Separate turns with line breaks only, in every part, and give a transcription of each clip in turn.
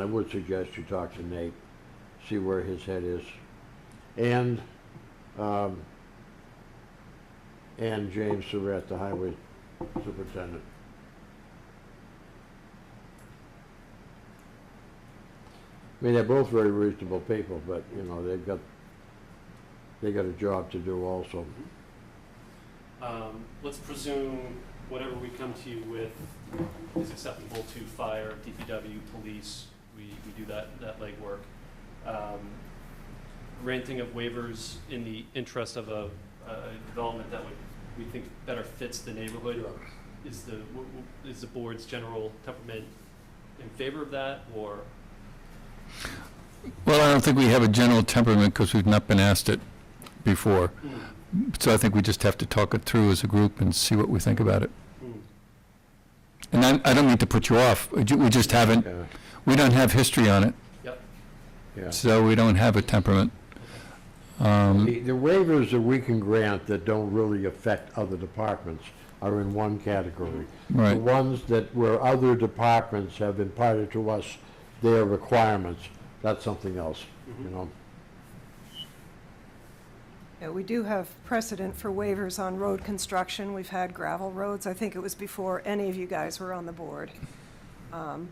I would suggest you talk to Nate, see where his head is, and, um, and James Surratt, the highway superintendent. I mean, they're both very reasonable people, but, you know, they've got, they got a job to do also.
Um, let's presume whatever we come to you with is acceptable to fire, DPW, police, we, we do that, that legwork. Um, Granting of waivers in the interest of a, a development that would, we think better fits the neighborhood is the, w- w- is the board's general temperament in favor of that, or?
Well, I don't think we have a general temperament because we've not been asked it before. So I think we just have to talk it through as a group and see what we think about it. And I, I don't mean to put you off. We ju- we just haven't,
Yeah,
we don't have history on it,
yeah.
so we don't have a temperament. Um,
The the waivers that we can grant that don't really affect other departments are in one category. The
Right,
ones that where other departments have imparted to us their requirements, that's something else, you know?
Yeah, we do have precedent for waivers on road construction. We've had gravel roads. I think it was before any of you guys were on the board. Um,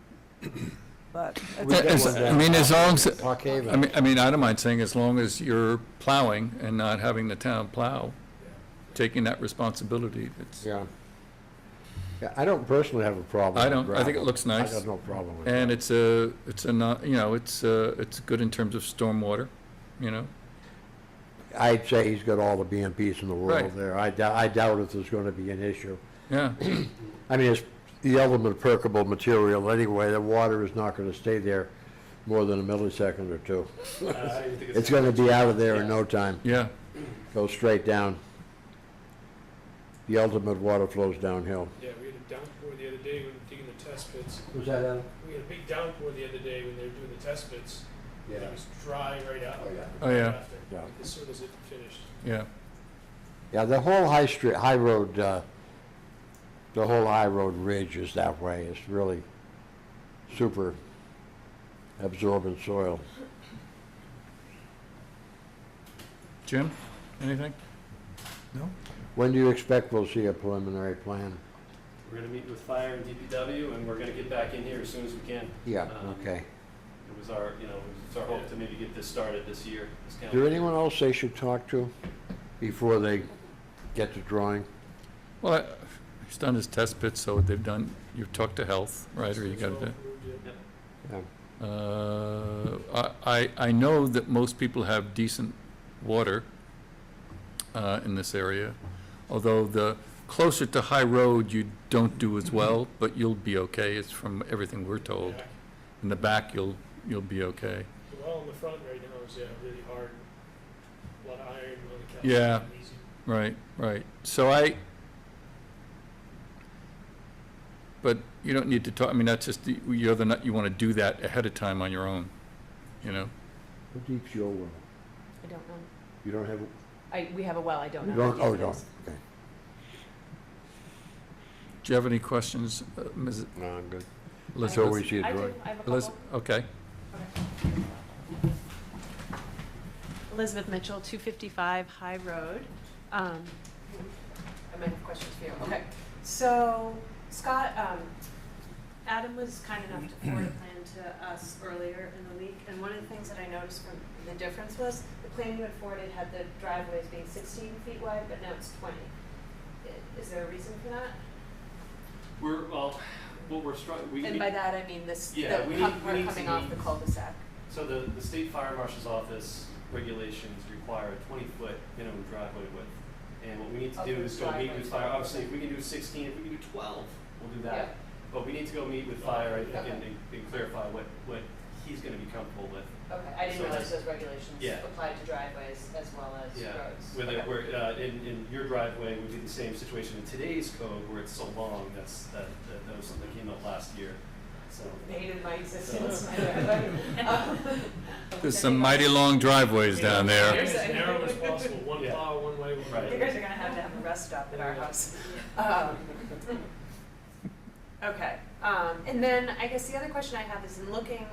But,
We
Yeah,
got
as-
one down
I mean, as long as-
in Park Haven.
I mean, I mean, I don't mind saying as long as you're plowing and not having the town plow, taking that responsibility, it's,
Yeah. Yeah, I don't personally have a problem
I
with
don't, I think
gravel.
it looks
I
nice.
got no problem with
And
that.
it's a, it's a not, you know, it's, uh, it's good in terms of stormwater, you know?
I'd say he's got all the BMPs in the world
Right.
there. I doubt, I doubt if there's gonna be an issue.
Yeah,
I mean, it's the element permeable material anyway, the water is not gonna stay there more than a millisecond or two.
Uh, I think
It's gonna be out of there in no time,
yeah,
go straight down. The ultimate water flows downhill.
Yeah, we had a downpour the other day when we were digging the test pits.
Was that Alan?
We had a big downpour the other day when they were doing the test pits. and It was dry right out.
Oh, yeah.
Oh, yeah.
after,
Yeah.
As soon as it finished.
yeah.
Yeah, the whole high street, high road, uh, the whole high road ridge is that way, it's really super absorbent soil.
Jim, anything?
When do you expect we'll see a preliminary plan?
We're gonna meet with fire and DPW, and we're gonna get back in here as soon as we can.
Yeah,
Um,
Uh, okay.
It was our, you know, it was our hope to maybe get this started this year. this
Is
calendar
there
year.
anyone else they should talk to before they get to drawing?
Well, I- he's done his test pits, so they've done, you've talked to health, right, or you
So
got
approved, yeah.
Yeah.
to, uh, I, I I know that most people have decent water uh, in this area, although the closer to High Road, you don't do as well, but you'll be okay, it's from everything we're told.
Yeah.
In the back, you'll, you'll be okay.
The well in the front right now is, yeah, really hard. A lot of iron, a lot of calcium.
Yeah.
easy.
Right, right. So I, but you don't need to talk, I mean, that's just, the- you're the, nut- you want to do that ahead of time on your own, you know?
How deep's your well?
I don't know.
You don't have,
I, we have a well, I don't know.
you
how
don't,
deep
oh,
it
you don't,
is.
okay.
Do you have any questions, uh, Ms.
No, I'm good.
Liz?
So we see a
I do,
drawing.
I have a
Liz,
couple.
okay.
Elizabeth Mitchell, 255 High Road. Um, I might have questions for you. Okay. So Scott, um, Adam was kind enough to forward a plan to us earlier in the week, and one of the things that I noticed from the difference was the plan you had forwarded had the driveways being 16 feet wide, but now it's 20. I- Is there a reason for that?
We're, well, what we're struggling, we,
And by that, I mean this, the,
Yeah, we need-
com-
we
we're
need to
coming off
meet-
the cul-de-sac.
so the, the state fire marshal's office regulations require a twenty foot minimum driveway width. And what we need to do
Okay,
is go meet
driveway.
with fire, obviously, if we can do sixteen, if we can do twelve, we'll do
Yeah.
that. But we need to go meet with fire, I think,
Okay.
and, and clarify what, what he's gonna be comfortable with.
Okay,
So
I didn't realize
that's-
those regulations
yeah.
applied to driveways as well as
Yeah,
roads.
Where they,
Okay.
where, uh, in, in your driveway would be the same situation in today's code where it's so long, that's, that, that- that was something that came up last year, so.
Hated my existence, my driveway. Um,
There's some mighty long driveways down there.
As narrow as possible, one
Yeah.
plow, one way, one
Right.
way.
You guys are gonna have to have a rest stop at our house. Um, Okay, um, and then I guess the other question I have is in looking